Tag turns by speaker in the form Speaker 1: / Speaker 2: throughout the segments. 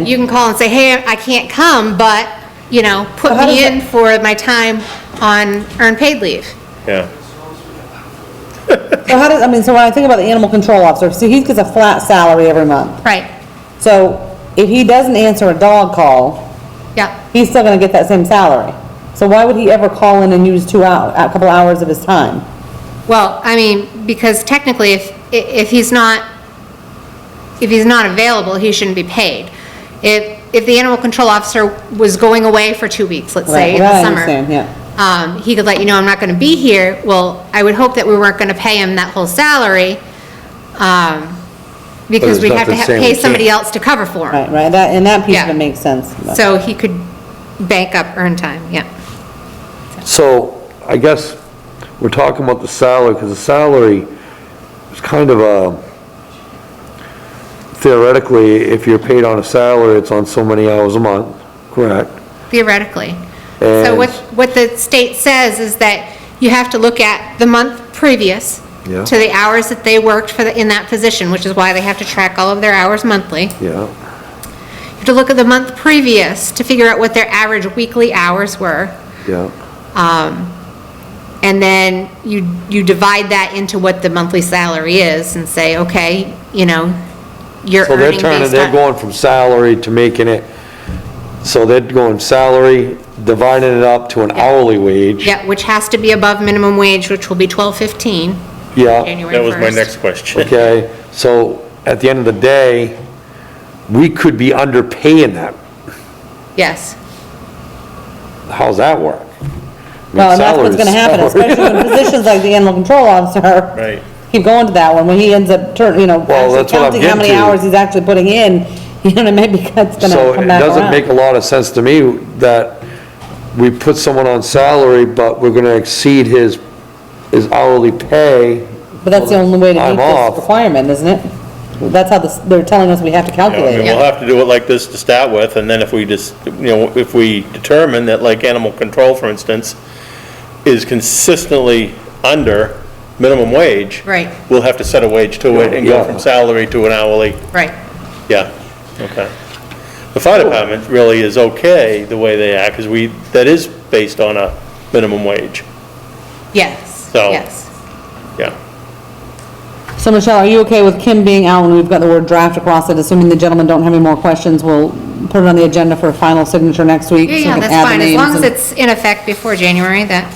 Speaker 1: You can call and say, hey, I can't come, but, you know, put
Speaker 2: But how
Speaker 1: me
Speaker 2: does
Speaker 1: in for my time on earned paid leave.
Speaker 3: Yeah.
Speaker 2: So how does, I mean, so when I think about the animal control officer, see, he gets a flat salary every month.
Speaker 1: Right,
Speaker 2: So if he doesn't answer a dog call,
Speaker 1: yeah,
Speaker 2: he's still gonna get that same salary. So why would he ever call in and use two hour, a couple hours of his time?
Speaker 1: well, I mean, because technically, if, i- if he's not, if he's not available, he shouldn't be paid. If, if the animal control officer was going away for two weeks, let's say, in
Speaker 2: Right, right,
Speaker 1: the
Speaker 2: I
Speaker 1: summer.
Speaker 2: understand, yeah.
Speaker 1: um, he could let you know, I'm not going to be here. Well, I would hope that we weren't going to pay him that whole salary, um, because
Speaker 3: there's
Speaker 1: we'd have to
Speaker 3: nothing
Speaker 1: ha-
Speaker 3: saying we
Speaker 1: pay somebody
Speaker 3: can't.
Speaker 1: else to cover for him.
Speaker 2: Right, right, that, and that piece of
Speaker 1: Yeah.
Speaker 2: it makes sense. but-
Speaker 1: So he could bank up earned time, yeah.
Speaker 3: So I guess we're talking about the salary, because the salary is kind of a, theoretically, if you're paid on a salary, it's on so many hours a month, correct?
Speaker 1: theoretically. So
Speaker 3: And-
Speaker 1: what, what the state says is that you have to look at the month previous
Speaker 3: Yeah.
Speaker 1: to the hours that they worked for, the in that position, which is why they have to track all of their hours monthly.
Speaker 3: Yeah,
Speaker 1: You have to look at the month previous to figure out what their average weekly hours were.
Speaker 3: yeah,
Speaker 1: And then you, you divide that into what the monthly salary is and say, okay, you know, you're
Speaker 3: so they're
Speaker 1: earning
Speaker 3: turning,
Speaker 1: based
Speaker 3: they're
Speaker 1: on.
Speaker 3: going from salary to making it, so they're going salary, dividing it up to an hourly wage.
Speaker 1: Yeah, which has to be above minimum wage, which will be twelve fifteen,
Speaker 3: Yeah,
Speaker 1: January
Speaker 4: That was my
Speaker 1: first.
Speaker 4: next question.
Speaker 3: okay, so at the end of the day, we could be underpaying that
Speaker 1: Yes,
Speaker 3: how's that work?
Speaker 2: Well, and that's what's gonna happen, especially when positions like the animal control officer.
Speaker 4: Right.
Speaker 2: Keep going to that one, when he ends up turning, you know, actually
Speaker 3: Well, that's what I'm
Speaker 2: counting how
Speaker 3: getting
Speaker 2: many
Speaker 3: to.
Speaker 2: hours he's actually putting in, you know, maybe that's
Speaker 3: So
Speaker 2: gonna
Speaker 3: it
Speaker 2: come back
Speaker 3: doesn't make
Speaker 2: around.
Speaker 3: a lot of sense to me that we put someone on salary, but we're gonna exceed his, his hourly pay.
Speaker 2: But that's the only way to meet
Speaker 3: I'm off.
Speaker 2: this requirement, isn't it? That's how this, they're telling us we have to
Speaker 4: You know, I
Speaker 2: calculate
Speaker 4: mean,
Speaker 2: it.
Speaker 4: we'll have to do it like this to start with, and then if we just, you know, if we determine that like animal control, for instance, is consistently under minimum wage.
Speaker 1: Right.
Speaker 4: We'll have to set a wage to it and go
Speaker 3: Yeah.
Speaker 4: from salary to an hourly.
Speaker 1: right.
Speaker 4: Yeah, okay. The fire department really is okay the way they act, because we, that is based on a minimum wage,
Speaker 1: Yes,
Speaker 4: So-
Speaker 1: yes.
Speaker 4: yeah.
Speaker 2: So Michelle, are you okay with Kim being out when we've got the word draft across it? Assuming the gentlemen don't have any more questions, we'll put it on the agenda for a final signature next week.
Speaker 1: Yeah,
Speaker 2: so we
Speaker 1: yeah,
Speaker 2: can
Speaker 1: that's
Speaker 2: add the
Speaker 1: fine, as
Speaker 2: names
Speaker 1: long as
Speaker 2: and-
Speaker 1: it's in effect before January, that,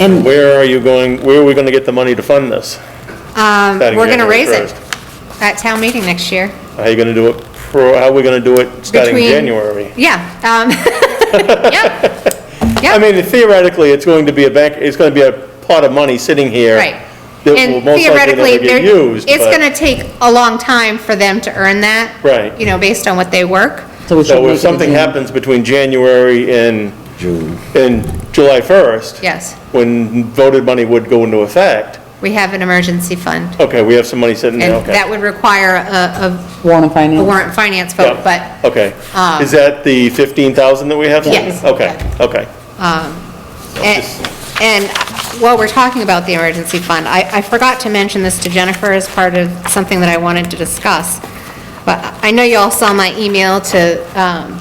Speaker 2: And
Speaker 4: Where are you going, where are we gonna get the money to fund this?
Speaker 1: um,
Speaker 4: Starting
Speaker 1: we're gonna
Speaker 4: January
Speaker 1: raise it
Speaker 4: 1st.
Speaker 1: at town meeting next year.
Speaker 4: How are you gonna do it, pro- how are we gonna do it starting
Speaker 1: between-
Speaker 4: January?
Speaker 1: Yeah, um, yeah,
Speaker 4: I mean, theoretically, it's going to be a bank, it's gonna be a pot of money sitting here.
Speaker 1: right.
Speaker 4: That will
Speaker 1: And
Speaker 4: most likely
Speaker 1: theoretically,
Speaker 4: never
Speaker 1: they're-
Speaker 4: get used,
Speaker 1: it's
Speaker 4: but-
Speaker 1: gonna take a long time for them to earn that.
Speaker 4: Right.
Speaker 1: You know, based on what they work.
Speaker 2: So we should
Speaker 4: So
Speaker 2: make it
Speaker 4: if
Speaker 2: a
Speaker 4: something
Speaker 2: June.
Speaker 4: happens between January and. June. And July first.
Speaker 1: Yes,
Speaker 4: When voted money would go into effect,
Speaker 1: we have an emergency fund.
Speaker 4: okay, we have some money sitting there,
Speaker 1: And
Speaker 4: okay.
Speaker 1: that would require a,
Speaker 2: Warren and
Speaker 1: a- a
Speaker 2: Finance.
Speaker 1: warrant finance
Speaker 4: Yeah,
Speaker 1: vote, but,
Speaker 4: Okay.
Speaker 1: um,
Speaker 4: Is that the 15,000 that we have?
Speaker 1: Yes.
Speaker 4: Okay, okay.
Speaker 1: And and while we're talking about the emergency fund, I, I forgot to mention this to Jennifer as part of something that I wanted to discuss. But I know you all saw my email to um,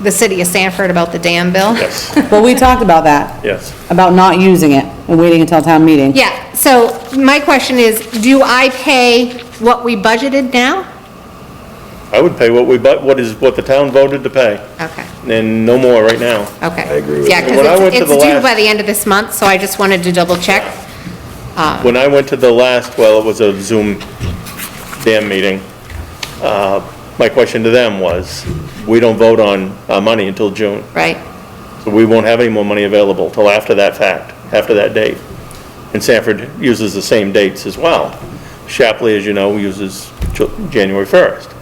Speaker 1: the city of Sanford about the dam bill.
Speaker 4: Yes,
Speaker 2: Well, we talked about that.
Speaker 4: yes.
Speaker 2: About not using it and waiting until town meeting.
Speaker 1: Yeah, so my question is, do I pay what we budgeted now?
Speaker 4: I would pay what we, but what is, what the town voted to pay,
Speaker 1: Okay,
Speaker 4: and no more right now.
Speaker 1: okay. I agree with Yeah,
Speaker 4: that. When I
Speaker 1: because
Speaker 4: went to
Speaker 1: it's
Speaker 4: the
Speaker 1: due
Speaker 4: last-
Speaker 1: by the end of this month, so I just wanted to double check.
Speaker 4: When I went to the last, well, it was a Zoom damn meeting, uh, my question to them was, we don't vote on uh, money until June,
Speaker 1: Right,
Speaker 4: so we won't have any more money available till after that fact, after that date. And Sanford uses the same dates as well. Shapley, as you know, uses Ju- January 1st,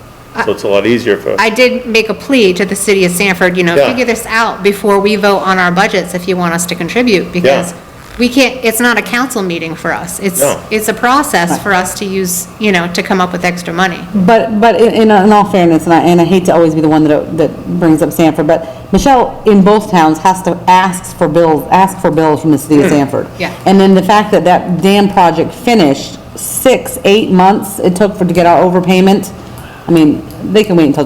Speaker 4: so it's a lot easier for.
Speaker 1: I did make a plea to the city of Sanford, you know,
Speaker 4: Yeah.
Speaker 1: figure this out before we vote on our budgets if you want us to contribute, because
Speaker 4: Yeah.
Speaker 1: we can't, it's not a council meeting for us. It's,
Speaker 4: No.
Speaker 1: it's a process for us to use, you know, to come up with extra money.
Speaker 2: But, but in, in in all fairness, and I, and I hate to always be the one that, that brings up Sanford, but Michelle, in both towns, has to, asks for bills, ask for bills from the city of Sanford.
Speaker 1: Yeah.
Speaker 2: And then the fact that that dam project finished, six, eight months it took for, to get our overpayment, I mean, they can wait until